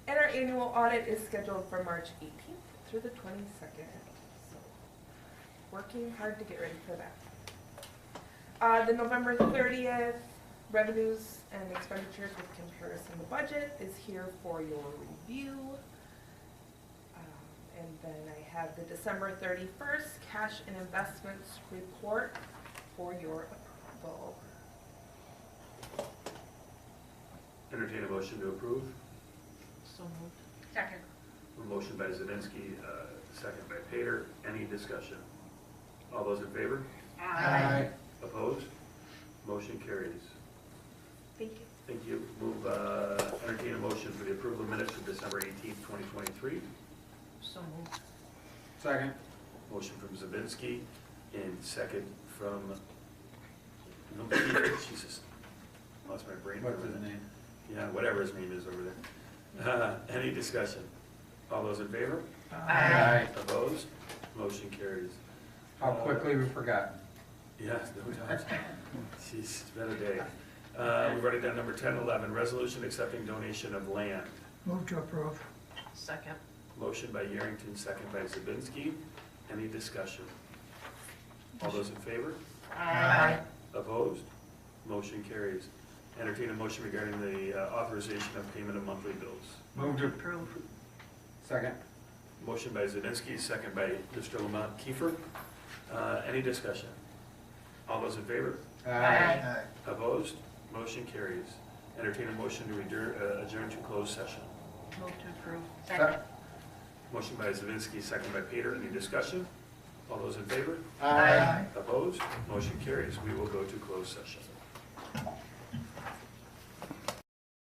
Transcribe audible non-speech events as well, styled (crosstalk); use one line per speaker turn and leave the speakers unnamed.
annual audit is scheduled for March 18th through the 22nd. So, Working hard to get ready for that. Uh, The November 30th revenues and expenditures with comparison to budget is here for your review. Um, And then I have the December 31st cash and investments report for your approval.
Entertain a motion to approve.
So moved.
Second.
A motion by Zelinski, uh, second by Pater. Any discussion? All those in favor? Opposed? Motion carries.
Thank you.
Thank you. Move, uh, entertain a motion for the approval of minutes for December 18th, 2023.
So moved.
Second.
Motion from Zelinski and second from, no, Peter, Jesus. Lost my brain.
What's
for a
his
minute.
name?
Yeah, whatever his name is over there. (laughs) Uh, Any discussion? All those in favor?
Aye.
Opposed? Motion carries. Uh,
How quickly we forgot.
Yes, no doubt. Jeez, it's been a day. Uh, We've already done number 10, 11, resolution accepting donation of land.
Move to approve.
Second.
Motion by Yerington, second by Zabinski. Any discussion? All those in favor?
Aye.
Opposed? Motion carries. Entertain a motion regarding the uh, authorization of payment of monthly bills.
Move to,
Approve.
second.
Motion by Zelinski, second by Mr. Lamont Kiefer. Uh, Any discussion? All those in favor?
Aye.
Opposed? Motion carries. Entertain a motion to adjourn- uh, adjourn to closed session.
Move to approve.
Second.
Motion by Zelinski, second by Peter. Any discussion? All those in favor?
Aye.
Opposed? Motion carries. We will go to closed session.